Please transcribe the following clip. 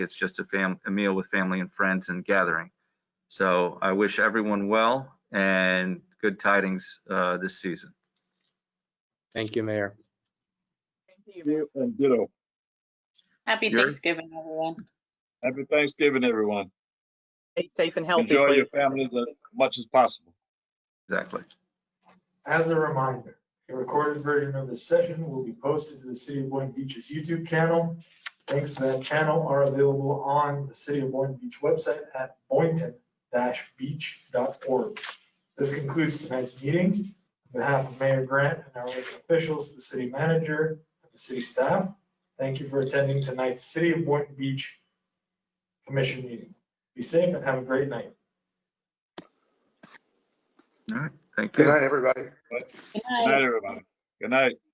It's just a fam, a meal with family and friends and gathering. So I wish everyone well and good tidings uh, this season. Thank you, Mayor. Thank you, And ditto. Happy You're- Thanksgiving, everyone. Happy Thanksgiving, everyone. Stay safe and healthy. Enjoy your please. families as much as possible. Exactly. As a reminder, a recorded version of this session will be posted to the City of Boynton Beach's YouTube channel. Links to that channel are available on the City of Boynton Beach website at boynton-beach.org. This concludes tonight's meeting. On behalf of Mayor Grant and our elected officials, the city manager, and the city staff, thank you for attending tonight's City of Boynton Beach Commission meeting. Be safe and have a great night. Thank you. Good night, everybody. Good Good night. night, everybody. Good night.